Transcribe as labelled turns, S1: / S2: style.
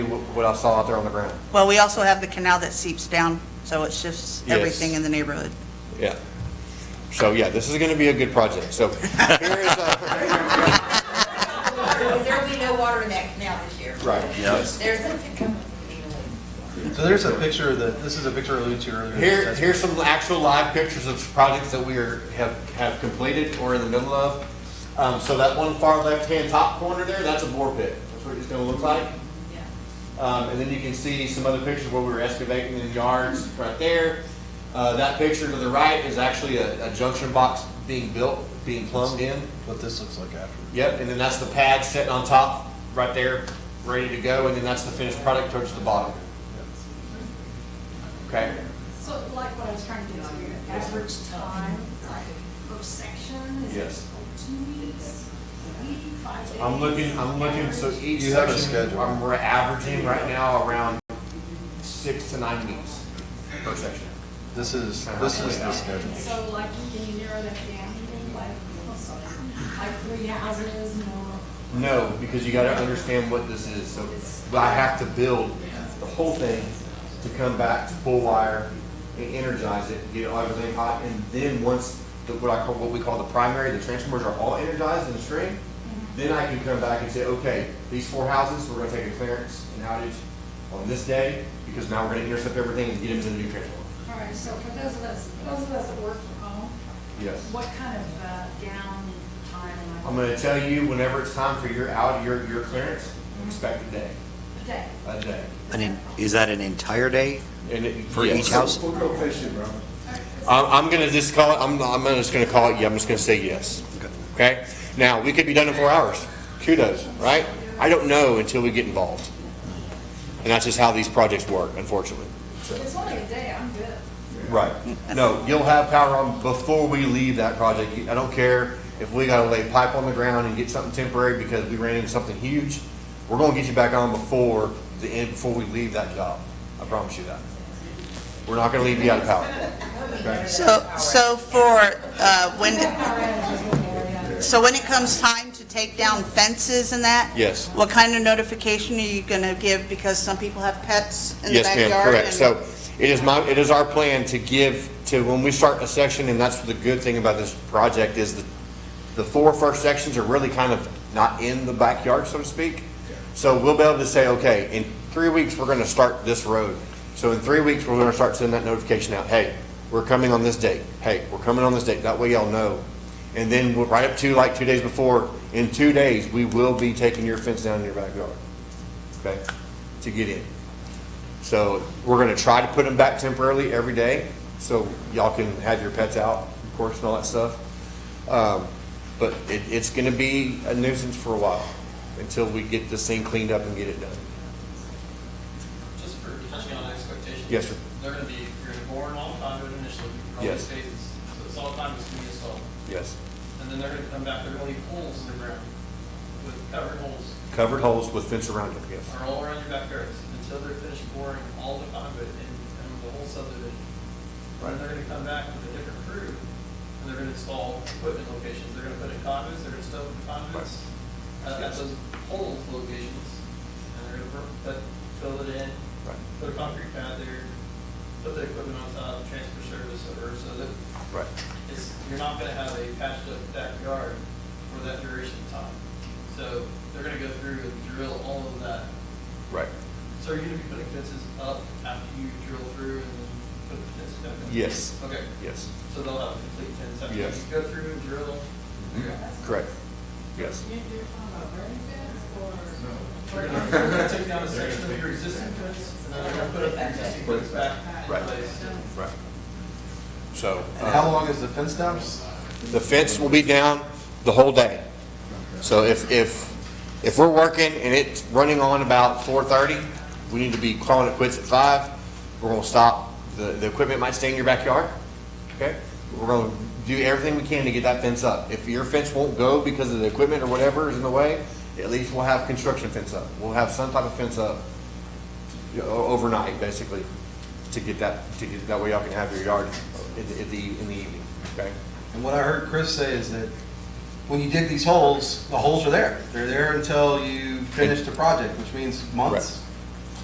S1: what I saw out there on the ground.
S2: Well, we also have the canal that seeps down, so it shifts
S1: Yes.
S2: everything in the neighborhood.
S1: Yeah. So, yeah, this is going to be a good project. So here is uh, a,
S3: Because there'll be no water in that canal this year.
S1: right. Yes.
S3: There's a,
S4: So there's a picture that, this is a picture I alluded to earlier.
S1: Here,
S4: That's-
S1: here's some actual live pictures of projects that we are, have, have completed or in the middle of. Um, so that one far left-hand top corner there, that's a bore pit. That's what it's gonna look like. Um, and then you can see some other pictures where we were excavating in yards right there. Uh, that picture to the right is actually a, a junction box being built, being plumbed in.
S4: What this looks like after.
S1: Yep, and then that's the pad sitting on top, right there, ready to go, and then that's the finished product towards the bottom. Okay,
S5: So like what I was trying to get to, your average time, like per section, is it
S1: Yes.
S5: two weeks, a week, five days?
S1: I'm looking, I'm looking, so each
S4: You have a
S1: section,
S4: schedule.
S1: I'm, we're averaging right now around six to nine weeks per section.
S4: This is, this is the schedule.
S5: So like, can you narrow that down, like, oh, sorry, like three houses, more?
S1: No, because you gotta understand what this is, so I have to build the whole thing to come back to full wire and energize it, get everything hot, and then once the, what I call, what we call the primary, the transformers are all energized in the string, then I can come back and say, okay, these four houses, we're gonna take a clearance and outage on this day, because now we're gonna intercept everything and get into the new transformer.
S5: All right, so for those of us, those of us that work from home,
S1: Yes.
S5: what kind of uh, down time am I?
S1: I'm gonna tell you, whenever it's time for your out, your, your clearance, expect a day,
S5: A day?
S1: a day.
S6: An en- Is that an entire day?
S1: And it-
S6: For
S1: yes.
S6: each house?
S1: I'm, I'm gonna just call it, I'm, I'm just gonna call it, yeah, I'm just gonna say yes. Okay? Now, we could be done in four hours. Kudos, right? I don't know until we get involved. And that's just how these projects work, unfortunately.
S5: If It's only a day, I'm good.
S1: Right. No, you'll have power on before we leave that project. I don't care if we gotta lay pipe on the ground and get something temporary because we ran into something huge. We're gonna get you back on before the end, before we leave that job. I promise you that. We're not gonna leave you out of power.
S2: So, so for, uh, when, so when it comes time to take down fences and that?
S1: Yes.
S2: What kind of notification are you going to give? Because some people have pets in the
S1: Yes,
S2: backyard.
S1: ma'am, correct.
S2: and-
S1: So it is my, it is our plan to give to, when we start a section, and that's the good thing about this project is the, the four first sections are really kind of not in the backyard, so to speak. So we'll be able to say, okay, in three weeks, we're gonna start this road. So in three weeks, we're gonna start sending that notification out, hey, we're coming on this date. Hey, we're coming on this date. That way y'all know. And then we'll- right up to like two days before, in two days, we will be taking your fence down in your backyard. Okay? To get in. So we're gonna try to put them back temporarily every day, so y'all can have your pets out, of course, and all that stuff. Um, But it, it's gonna be a nuisance for a while, until we get this thing cleaned up and get it done.
S7: Just for touching on expectations.
S1: Yes, sir.
S7: They're gonna be, you're gonna bore an all conduit initially, probably
S1: Yes.
S7: phases, so it's all conduit's gonna be installed.
S1: Yes.
S7: And then they're gonna come back, they're gonna leave holes in the ground with covered holes,
S1: Covered holes with fence around it, yes.
S7: are all around your backyards until they're finished boring all the conduit and, and the whole subdivision. And then they're gonna come back with a different crew and they're gonna install equipment locations. They're gonna put in conduits, they're gonna stow the conduits uh, at, at those hole locations. And they're gonna put, fill it in,
S1: Right.
S7: put a concrete pad there, put the equipment on top, transfer service over, so that
S1: Right.
S7: it's, you're not gonna have a patched up backyard for that duration of time. So they're gonna go through and drill all of that.
S1: Right.
S7: So are you gonna be putting fences up after you drill through and then put the fence back in?
S1: Yes.
S7: Okay,
S1: Yes.
S7: so they'll have a complete fence after you
S1: Yes. Mm-hmm.
S7: go through and drill.
S1: Correct. Yes.
S7: They're gonna- They're gonna take down a section of your existing fence, and then they're gonna put up your existing fence back in
S1: Right.
S7: place.
S1: Right. So.
S4: And
S1: uh,
S4: how long is the fence down?
S1: The fence will be down the whole day. So if, if, if we're working and it's running on about four thirty, we need to be calling it quits at five. We're gonna stop, the, the equipment might stay in your backyard, okay? We're gonna do everything we can to get that fence up. If your fence won't go because of the equipment or whatever is in the way, at least we'll have construction fence up. We'll have some type of fence up you know, o- overnight, basically, to get that, to get, that way y'all can have your yard in the, in the, in the evening, okay?
S4: And what I heard Chris say is that when you dig these holes, the holes are there. They're there until you finish the project, which means months.